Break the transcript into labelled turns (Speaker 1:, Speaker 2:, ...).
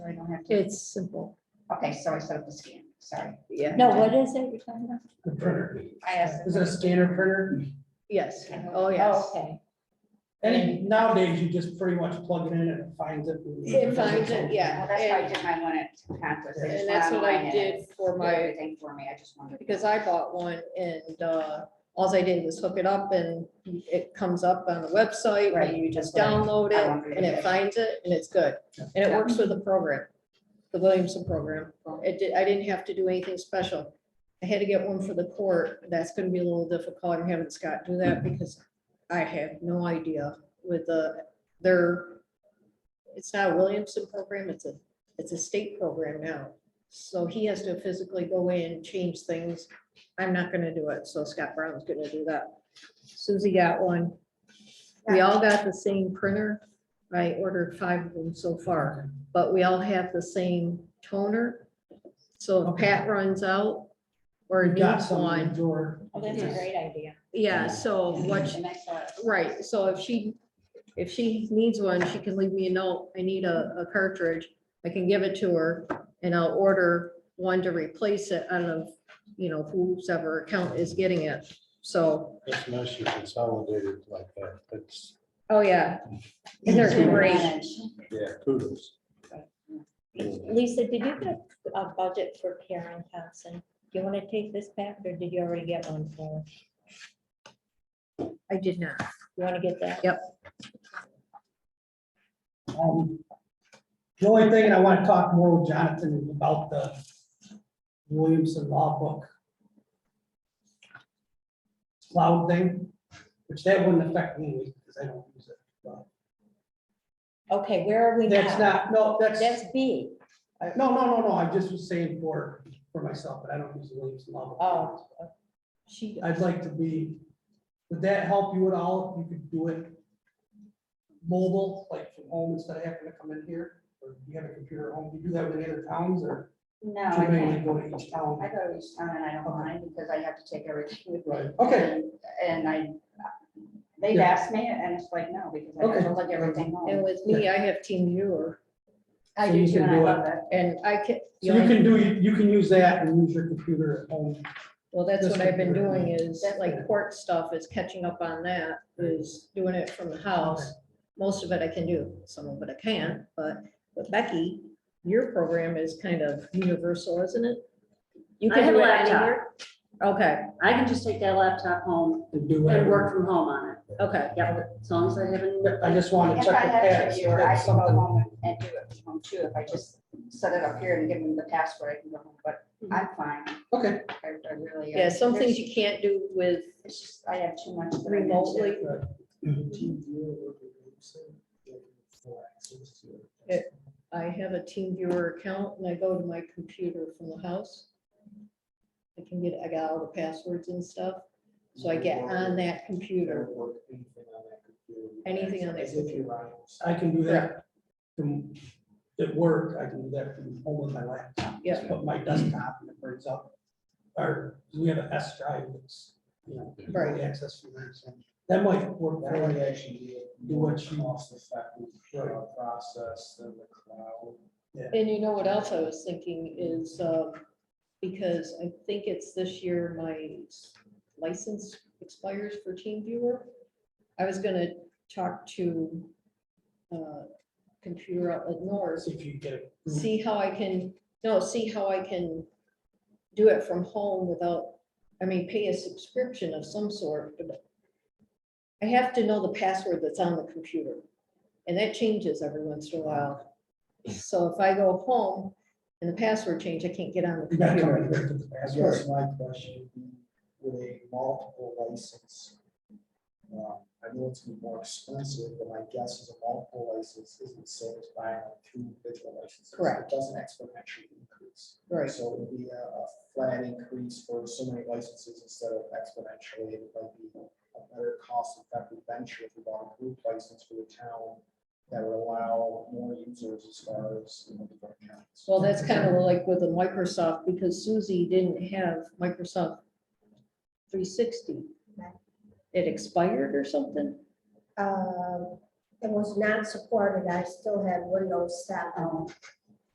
Speaker 1: It's simple.
Speaker 2: Okay, so I set up the scan, sorry.
Speaker 1: Yeah.
Speaker 3: No, what is it you're talking about?
Speaker 4: The printer.
Speaker 2: I asked.
Speaker 4: Is it a scanner printer?
Speaker 1: Yes. Oh, yes.
Speaker 3: Okay,
Speaker 4: And nowadays, you just pretty much plug it in and it finds it.
Speaker 1: It finds it, yeah.
Speaker 2: Well, that's why I
Speaker 1: and-
Speaker 2: did my one at Conquest. They just went
Speaker 1: And that's what
Speaker 2: online
Speaker 1: I
Speaker 2: and
Speaker 1: did for
Speaker 2: did
Speaker 1: my,
Speaker 2: Everything for me, I just wondered.
Speaker 1: because I bought one and, uh, alls I did was hook it up and it comes up on the website
Speaker 2: Right,
Speaker 1: and you just
Speaker 2: that's what I-
Speaker 1: download
Speaker 2: I wondered
Speaker 1: it and
Speaker 2: if
Speaker 1: it
Speaker 2: it-
Speaker 1: finds it and it's good. And it works with the program, the Williamson program. It did, I didn't have to do anything special. I had to get one for the court. That's gonna be a little difficult. I'm having Scott do that because I have no idea with the, their, it's not a Williamson program, it's a, it's a state program now. So he has to physically go in, change things. I'm not gonna do it, so Scott Brown's gonna do that. Susie got one. We all got the same printer. I ordered five of them so far, but we all have the same toner. So if Pat runs out or
Speaker 4: We've got
Speaker 1: needs
Speaker 4: some in the
Speaker 1: one,
Speaker 4: drawer.
Speaker 3: oh, that's a great idea.
Speaker 1: yeah, so what
Speaker 2: And I saw it.
Speaker 1: Right, so if she, if she needs one, she can leave me a note, I need a, a cartridge, I can give it to her, and I'll order one to replace it out of, you know, who's ever account is getting it, so,
Speaker 5: It's nice you consolidated like that. That's,
Speaker 1: oh, yeah. And they're great,
Speaker 5: yeah, kudos.
Speaker 3: Lisa, did you get a- a budget for Karen Thompson? Do you want to take this back or did you already get one for? her?
Speaker 1: I did not,
Speaker 3: You want to get that?
Speaker 4: Um, The only thing, and I want to talk more with Jonathan is about the Williamson Law Book. Cloud thing, which that wouldn't affect me because I don't use it.
Speaker 3: Okay, where are we
Speaker 4: That's
Speaker 3: now?
Speaker 4: not, no, that's,
Speaker 3: That's B.
Speaker 4: I- no, no, no, no, I just was saying for, for myself, but I don't use the Williamson Law Book.
Speaker 3: Oh. She,
Speaker 4: I'd like to be, would that help you at all? if You could do it mobile, like from home instead of having to come in here? Or do you have a computer at home? Do you do that with any other towns or
Speaker 2: No,
Speaker 4: too
Speaker 2: I
Speaker 4: many to
Speaker 2: can't. Oh,
Speaker 4: go to each town?
Speaker 2: I go to each town and I don't mind because I have to take everything with me.
Speaker 4: Right, okay,
Speaker 2: And I, they've
Speaker 4: Yeah.
Speaker 2: asked me and it's like, no, because I have to look everything
Speaker 1: and
Speaker 2: home.
Speaker 1: with me, I have Team Viewer,
Speaker 2: I
Speaker 4: So
Speaker 2: do
Speaker 4: you
Speaker 2: too,
Speaker 4: can
Speaker 2: and I
Speaker 4: do
Speaker 2: love it.
Speaker 1: and I can.
Speaker 4: so you can do, you can use that and use your computer at home.
Speaker 1: Well, that's what I've been doing is
Speaker 2: That's
Speaker 1: like court stuff is catching up on that, is doing it from the house. Most of it I can do, some of it I can't, but but Becky, your program is kind of universal, isn't it?
Speaker 6: You
Speaker 1: I
Speaker 6: can
Speaker 1: have
Speaker 6: do
Speaker 1: a
Speaker 6: it
Speaker 1: laptop.
Speaker 6: anywhere.
Speaker 1: Okay,
Speaker 6: I can just take that laptop home
Speaker 4: And do
Speaker 6: and work
Speaker 4: whatever.
Speaker 6: from home on it.
Speaker 1: okay.
Speaker 6: Yep, as long as I haven't,
Speaker 4: I just want to
Speaker 2: If
Speaker 4: check
Speaker 2: I
Speaker 4: with
Speaker 2: had
Speaker 4: Pat.
Speaker 2: a
Speaker 4: see
Speaker 2: computer,
Speaker 4: if
Speaker 2: I
Speaker 4: that's
Speaker 2: could go
Speaker 4: something-
Speaker 2: home and- and do it from home too. If I just set it up here and give them the password, I can go home, but I'm fine.
Speaker 4: Okay,
Speaker 2: I I really. am.
Speaker 1: Mm-hmm. Yeah, some things
Speaker 2: There's-
Speaker 1: you can't do with
Speaker 2: It's just, I have too much. that I need to-
Speaker 1: remotely. I have a team viewer account and I go to my computer from the house. I can get, I got all the passwords and stuff, so I get on that computer. Anything on that
Speaker 5: As if you're on
Speaker 4: I can do that from, at work, I can do that from home with my laptop. Just
Speaker 1: Yeah.
Speaker 4: Put my desktop and it brings up, or we have an S drive that's, you know, you can
Speaker 1: Right.
Speaker 4: access from there, so that might work.
Speaker 5: That
Speaker 4: that way.
Speaker 5: would actually be
Speaker 4: Do
Speaker 5: a more
Speaker 4: what you-
Speaker 5: cost effective process than the cloud.
Speaker 1: And you know what else I was thinking is, uh, because I think it's this year my license expires for TeamViewer. I was gonna talk to uh, Computer Outlet North,
Speaker 4: See if you get it.
Speaker 1: see how I can, no, see how I can do it from home without, I mean, pay a subscription of some sort, but I have to know the password that's on the computer, and that changes every once in a while. So if I go home and the password change, I can't get on the
Speaker 4: You gotta come in
Speaker 1: computer.
Speaker 4: here to the
Speaker 5: I
Speaker 4: password.
Speaker 5: guess my question would be, with a multiple license. uh, I know it's gonna be more expensive, but my guess is a multiple license isn't the same as buying two individual licenses.
Speaker 1: Correct.
Speaker 5: It doesn't exponentially increase.
Speaker 1: Right,
Speaker 5: So it would be a, a flat increase for so many licenses instead of exponentially. It might be a better cost effective venture if we bought a group license for the town that would allow more users as far as, you know, different accounts.
Speaker 1: well, that's kind of like with the Microsoft, because Susie didn't have Microsoft three sixty. It expired or something?
Speaker 7: um, it was not supported, I still had Windows seven.
Speaker 2: Oh,